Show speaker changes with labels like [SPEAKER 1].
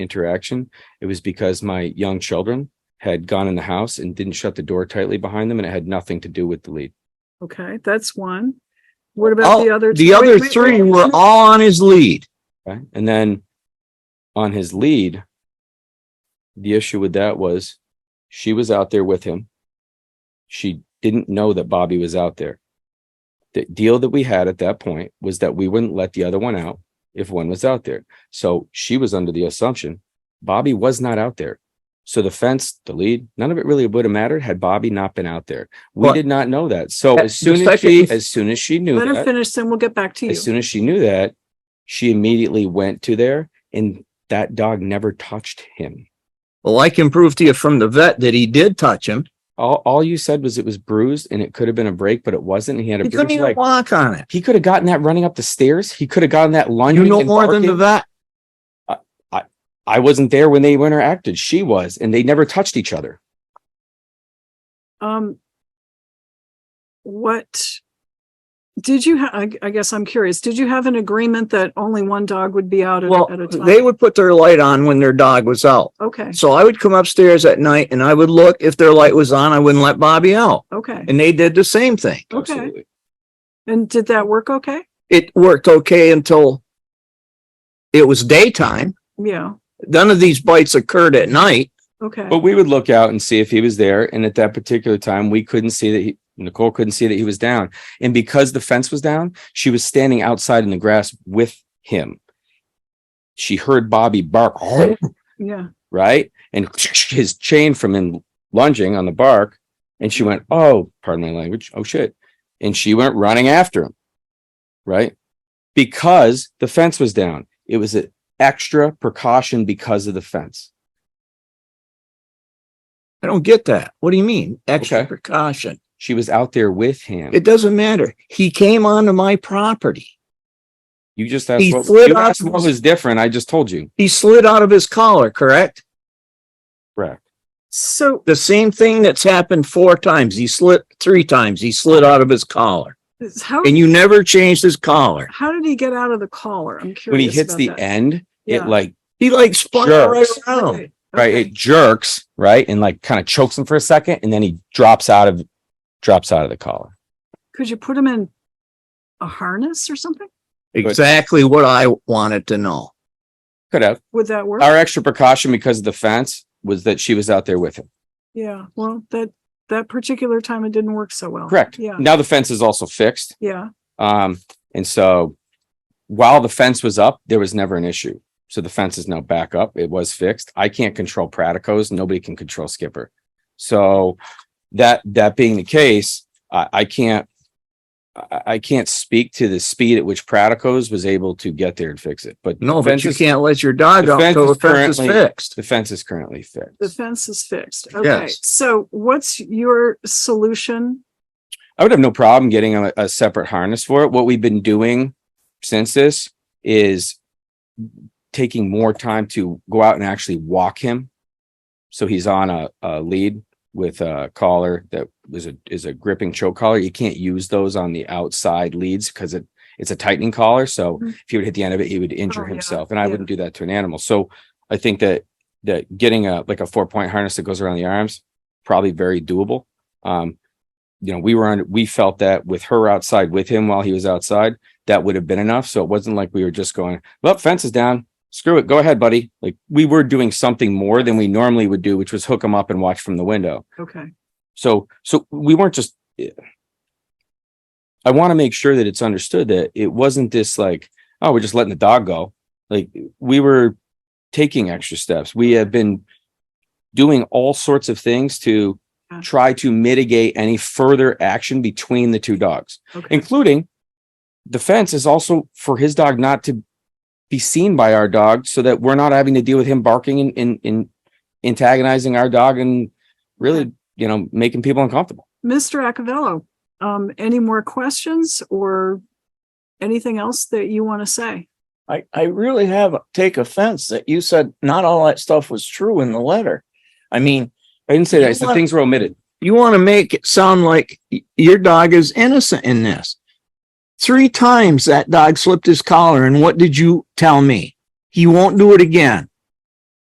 [SPEAKER 1] interaction, it was because my young children had gone in the house and didn't shut the door tightly behind them, and it had nothing to do with the lead.
[SPEAKER 2] Okay, that's one. What about
[SPEAKER 3] All-
[SPEAKER 2] the other?
[SPEAKER 3] Oh, The
[SPEAKER 2] wait,
[SPEAKER 3] other
[SPEAKER 2] wait,
[SPEAKER 3] three
[SPEAKER 2] wait,
[SPEAKER 3] were
[SPEAKER 2] wait.
[SPEAKER 3] all on his lead.
[SPEAKER 1] Okay. And then on his lead, the issue with that was she was out there with him. She didn't know that Bobby was out there. The deal that we had at that point was that we wouldn't let the other one out if one was out there. So she was under the assumption Bobby was not out there. So the fence, the lead, none of it really would have mattered had Bobby not been out there. We
[SPEAKER 3] But-
[SPEAKER 1] did not know that. So
[SPEAKER 3] Uh,
[SPEAKER 1] as soon
[SPEAKER 3] the
[SPEAKER 1] as she,
[SPEAKER 3] second-
[SPEAKER 1] as soon as she knew
[SPEAKER 2] Let her
[SPEAKER 1] that,
[SPEAKER 2] finish, then we'll get back to
[SPEAKER 1] as
[SPEAKER 2] you.
[SPEAKER 1] soon as she knew that, she immediately went to there and that dog never touched him.
[SPEAKER 3] Well, I can prove to you from the vet that he did touch him.
[SPEAKER 1] All, all you said was it was bruised and it could have been a break, but it wasn't. He had a
[SPEAKER 3] He couldn't
[SPEAKER 1] bruised
[SPEAKER 3] even
[SPEAKER 1] leg.
[SPEAKER 3] walk on it.
[SPEAKER 1] He could have gotten that running up the stairs. He could have gotten that lunging.
[SPEAKER 3] You know
[SPEAKER 1] and
[SPEAKER 3] more than the
[SPEAKER 1] barking.
[SPEAKER 3] vet.
[SPEAKER 1] I wasn't there when they interacted. She was, and they never touched each other.
[SPEAKER 2] Um. What? Did you, ha- I, I guess I'm curious, did you have an agreement that only one dog would be out at
[SPEAKER 3] Well,
[SPEAKER 2] at a time?
[SPEAKER 3] they would put their light on when their dog was out.
[SPEAKER 2] Okay,
[SPEAKER 3] So I would come upstairs at night and I would look. If their light was on, I wouldn't let Bobby out.
[SPEAKER 2] okay.
[SPEAKER 3] And they did the same thing.
[SPEAKER 2] Okay. And did that work okay?
[SPEAKER 3] It worked okay until it was daytime.
[SPEAKER 2] Yeah,
[SPEAKER 3] None of these bites occurred at night.
[SPEAKER 2] okay.
[SPEAKER 3] Oh.
[SPEAKER 1] But we would look out and see if he was there. And at that particular time, we couldn't see that he, Nicole couldn't see that he was down. And because the fence was down, she was standing outside in the grass with him. She heard Bobby bark,
[SPEAKER 2] Yeah,
[SPEAKER 1] right? And his chain from him lunging on the bark. And she went, Oh, pardon my language. Oh, shit. And she went running after him, right? Because the fence was down. It was an extra precaution because of the fence.
[SPEAKER 3] I don't get that. What do you mean? Extra
[SPEAKER 1] Okay.
[SPEAKER 3] precaution.
[SPEAKER 1] She was out there with him.
[SPEAKER 3] It doesn't matter. He came onto my property.
[SPEAKER 1] You just asked,
[SPEAKER 3] He
[SPEAKER 1] what,
[SPEAKER 3] slid
[SPEAKER 1] you
[SPEAKER 3] up-
[SPEAKER 1] asked what was different. I just told you.
[SPEAKER 3] He slid out of his collar, correct?
[SPEAKER 1] Correct.
[SPEAKER 2] so,
[SPEAKER 3] The same thing that's happened four times. He slid three times. He slid out of his collar
[SPEAKER 2] how,
[SPEAKER 3] and you never changed his collar.
[SPEAKER 2] how did he get out of the collar? I'm curious.
[SPEAKER 1] When he hits
[SPEAKER 2] about
[SPEAKER 1] the
[SPEAKER 2] that.
[SPEAKER 1] end,
[SPEAKER 2] Yeah.
[SPEAKER 1] it like,
[SPEAKER 3] He like spun right
[SPEAKER 1] Jerks.
[SPEAKER 3] around.
[SPEAKER 2] Okay,
[SPEAKER 1] right,
[SPEAKER 2] okay.
[SPEAKER 1] it jerks, right? And like kind of chokes him for a second and then he drops out of, drops out of the collar.
[SPEAKER 2] Could you put him in a harness or something?
[SPEAKER 3] Exactly what I wanted to know.
[SPEAKER 1] Could have.
[SPEAKER 2] Would that work?
[SPEAKER 1] Our extra precaution because of the fence was that she was out there with him.
[SPEAKER 2] Yeah, well, that, that particular time it didn't work so well.
[SPEAKER 1] Correct. Mm.
[SPEAKER 2] Yeah,
[SPEAKER 1] Now the fence is also fixed.
[SPEAKER 2] yeah,
[SPEAKER 1] Um, and so while the fence was up, there was never an issue. So the fence is now back up. It was fixed. I can't control Pradicos. Nobody can control Skipper. So that, that being the case, I, I can't, I, I can't speak to the speed at which Pradicos was able to get there and fix it, but.
[SPEAKER 3] No,
[SPEAKER 1] the
[SPEAKER 3] but
[SPEAKER 1] fence
[SPEAKER 3] you
[SPEAKER 1] is-
[SPEAKER 3] can't let your dog
[SPEAKER 1] the
[SPEAKER 3] out
[SPEAKER 1] fence
[SPEAKER 3] until the
[SPEAKER 1] is
[SPEAKER 3] fence is
[SPEAKER 1] currently-
[SPEAKER 3] fixed.
[SPEAKER 1] The fence is currently fixed.
[SPEAKER 2] the fence is fixed. Okay,
[SPEAKER 3] Yes.
[SPEAKER 2] so what's your solution?
[SPEAKER 1] I would have no problem getting a, a separate harness for it. What we've been doing since this is taking more time to go out and actually walk him. So he's on a, a lead with a collar that was a is a gripping choke collar. You can't use those on the outside leads because it it's a tightening collar. So
[SPEAKER 2] Mhm.
[SPEAKER 1] if he would hit the end of it, he would injure
[SPEAKER 2] Oh, yeah,
[SPEAKER 1] himself, and I
[SPEAKER 2] yeah.
[SPEAKER 1] wouldn't do that to an animal. So I think that that getting a like a four point harness that goes around the arms probably very doable. Um, you know, we were on, we felt that with her outside with him while he was outside, that would have been enough. So it wasn't like we were just going, well, fence is down. Screw it. Go ahead, buddy. Like we were doing something more than we normally would do, which was hook him up and watch from the window.
[SPEAKER 2] Okay,
[SPEAKER 1] So, so we weren't just, I want to make sure that it's understood that it wasn't this like, oh, we're just letting the dog go. Like we were taking extra steps. We have been doing all sorts of things to
[SPEAKER 2] Yeah.
[SPEAKER 1] try to mitigate any further action between the two dogs
[SPEAKER 2] okay,
[SPEAKER 1] including the fence is also for his dog not to be seen by our dog so that we're not having to deal with him barking and, and, and antagonizing our dog and really, you know, making people uncomfortable.
[SPEAKER 2] Mr. Acavelo, um, any more questions or anything else that you want to say?
[SPEAKER 4] I, I really have take offense that you said not all that stuff was true in the letter. I mean,
[SPEAKER 1] I didn't say that. It's the things were omitted.
[SPEAKER 3] You want to make it sound like y- your dog is innocent in this. Three times that dog slipped his collar and what did you tell me? He won't do it again.